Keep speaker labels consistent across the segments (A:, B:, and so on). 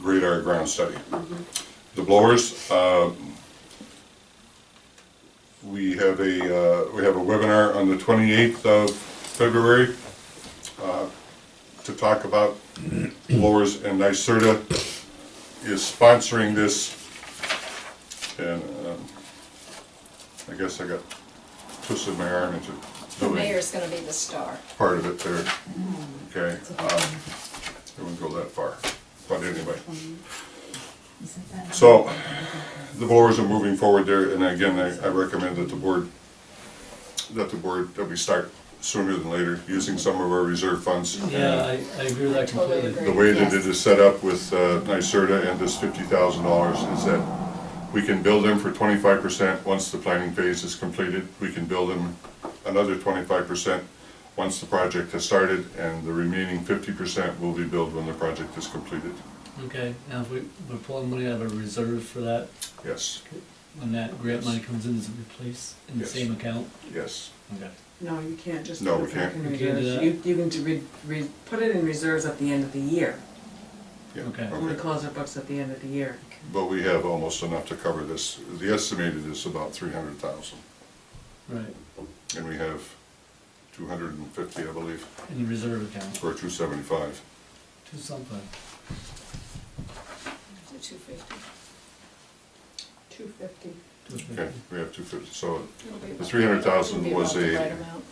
A: radar ground study. The blowers, uh, we have a, uh, we have a webinar on the 28th of February uh, to talk about blowers, and NYSERDA is sponsoring this. And um, I guess I got twisted my arm into
B: The
A: doing
B: mayor's gonna be the star.
A: part of it there, okay? um, It wouldn't go that far, but anyway. So, the blowers are moving forward there, and again, I, I recommend that the board, that the board, that we start sooner than later, using some of our reserve funds.
C: Yeah, I, I agree with that
B: Totally
C: completely.
A: The way that it is set up with uh, NYSERDA and this fifty thousand dollars is that we can bill them for twenty-five percent once the planning phase is completed. We can bill them another twenty-five percent once the project has started, and the remaining fifty percent will be billed when the project is completed.
C: Okay, now if we, we're pulling money out of a reserve for that,
A: Yes,
C: when that grant money comes in, does it replace in the
A: Yes.
C: same account?
A: yes.
C: Okay.
D: No, you can't just.
A: No,
D: put
A: we
D: it back
A: can't.
D: in
C: We can't do
D: reserves.
C: that.
D: You, you can do re, re, put it in reserves at the end of the year,
A: yeah,
C: Okay.
D: when we close our books at the end of the year.
A: But we have almost enough to cover this. The estimated is about three hundred thousand,
C: Right,
A: and we have two hundred and fifty, I believe,
C: in the reserve account,
A: or two seventy-five.
C: to something.
B: The two fifty.
D: Two fifty.
A: Okay, we have two fifty, so
B: It'll be
A: The
B: about-
A: 300,000
B: it'll be
A: was
B: about the
A: a-
B: right amount.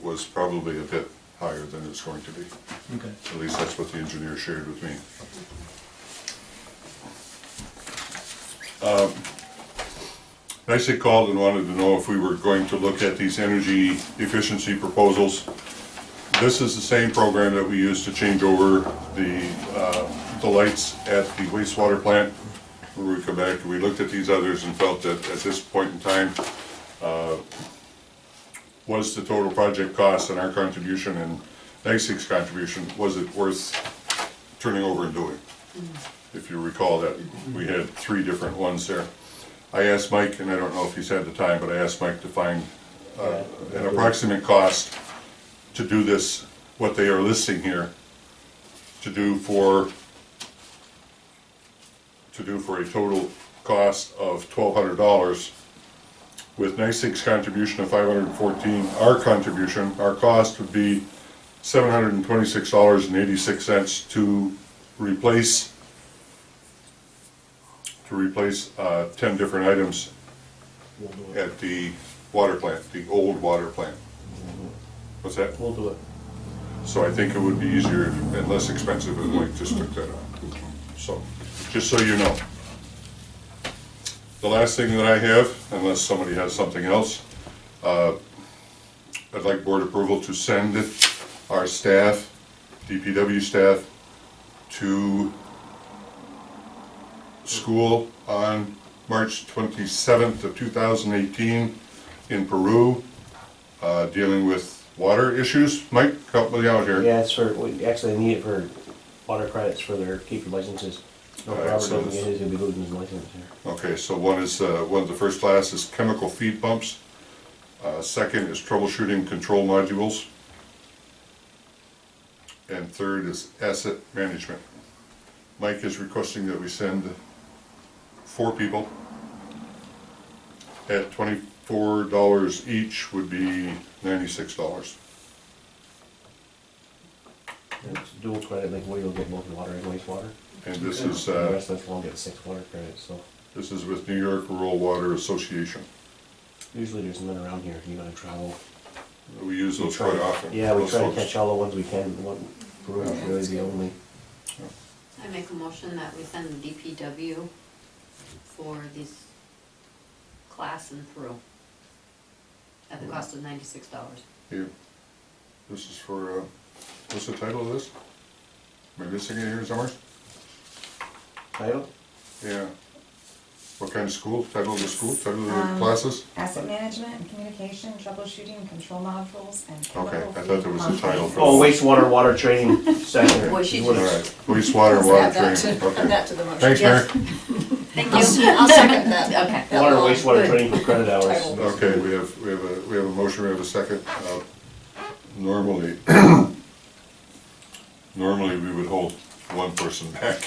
A: was probably a bit higher than it's going to be.
C: Okay,
A: At least that's what the engineer shared with me. Um, Nicely called and wanted to know if we were going to look at these energy efficiency proposals. This is the same program that we used to change over the, uh, the lights at the wastewater plant. Where we come back, we looked at these others and felt that at this point in time, was the total project cost and our contribution and NYSEG's contribution, was it worth turning over and doing? If you recall that, we had three different ones there. I asked Mike, and I don't know if he's had the time, but I asked Mike to find uh, an approximate cost to do this, what they are listing here, to do for, to do for a total cost of twelve hundred dollars with NYSEG's contribution of five hundred and fourteen, our contribution, our cost would be seven hundred and twenty-six dollars and eighty-six cents to replace, to replace, uh, ten different items
E: We'll do it.
A: at the water plant, the old water plant. What's that?
E: We'll do it.
A: So I think it would be easier and less expensive if Mike just took that on. So, just so you know. The last thing that I have, unless somebody has something else, uh, I'd like board approval to send our staff, DPW staff, to school on March twenty-seventh of two thousand eighteen in Peru, uh, dealing with water issues. Mike, help me out here.
E: Yeah, it's for, we actually need it for water credits for their keeper licenses. If
A: All right,
E: Robert
A: so
E: doesn't
A: this-
E: get his, he'll be losing his license here.
A: Okay, so one is, uh, one of the first class is chemical feed pumps. Uh, Second is troubleshooting control modules. And third is asset management. Mike is requesting that we send four people at twenty-four dollars each would be ninety-six dollars.
E: And It's dual credit, like where you'll get both water and wastewater.
A: And this is,
E: The
A: uh,
E: rest of us will get six water credits, so
A: this is with New York Rural Water Association.
E: usually there's none around here, you gotta travel.
A: We use
E: We
A: those
E: try-
A: quite often.
E: Yeah, we
A: those
E: try to
A: folks.
E: catch all the ones we can, what, Peru is really the only.
F: I make a motion that we send the DPW for these class in Peru at the cost of ninety-six dollars.
A: Here, this is for, uh, what's the title of this? Am I missing it here somewhere?
E: Title?
A: Yeah. What kind of school, title of the school, title of the
G: Um,
A: classes?
G: Asset management and communication, troubleshooting, control modules, and
A: Okay,
G: chemical
A: I thought there
G: feed
A: was a
G: pump
A: title for
E: Oh, wastewater, water training session.
F: Boy, she
E: is
A: All
E: what it's-
A: right, wastewater,
B: Let's
A: water
B: add that
A: training,
B: to- Add
A: okay.
B: that to the motion.
A: Thanks, Mary.
B: Yes.
F: Thank
B: I'll se- I'll second that.
F: Okay.
E: Water,
B: Hello,
E: wastewater
B: good.
E: training for credit hours.
B: Title.
A: Okay, we have, we have a, we have a motion, we have a second. Uh, Normally, normally we would hold one person back.